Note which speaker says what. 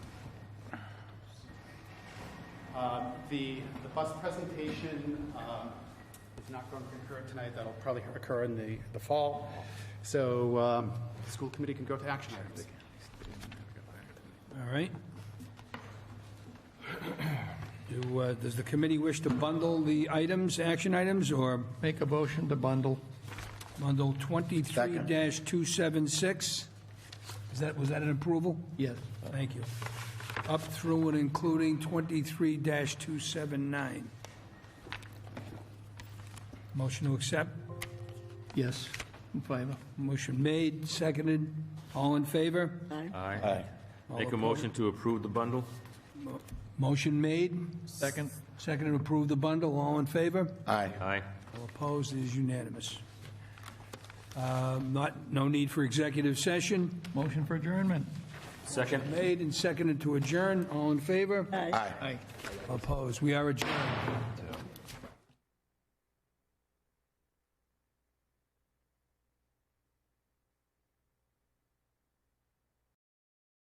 Speaker 1: Um, The, the bus presentation um, is not going to occur tonight, that'll probably occur in the, the fall. So um, the school committee can go to action items.
Speaker 2: All right. Do, uh, Does the committee wish to bundle the items, action items, or
Speaker 3: Make a motion to bundle.
Speaker 2: bundle 23-276? Is that, was that an approval?
Speaker 3: Yes.
Speaker 2: Thank you. Up through and including 23-279. Motion to accept.
Speaker 3: Yes. In favor.
Speaker 2: Motion made, seconded. All in favor?
Speaker 4: Aye. Make a motion to approve the bundle?
Speaker 2: Motion made,
Speaker 3: Second.
Speaker 2: seconded, approve the bundle. All in favor?
Speaker 5: Aye.
Speaker 4: Aye.
Speaker 2: All opposed, it is unanimous. Uh, Not, no need for executive session.
Speaker 3: Motion for adjournment.
Speaker 4: Second?
Speaker 2: Made and seconded to adjourn. All in favor?
Speaker 5: Aye.
Speaker 2: Opposed. We are adjourned.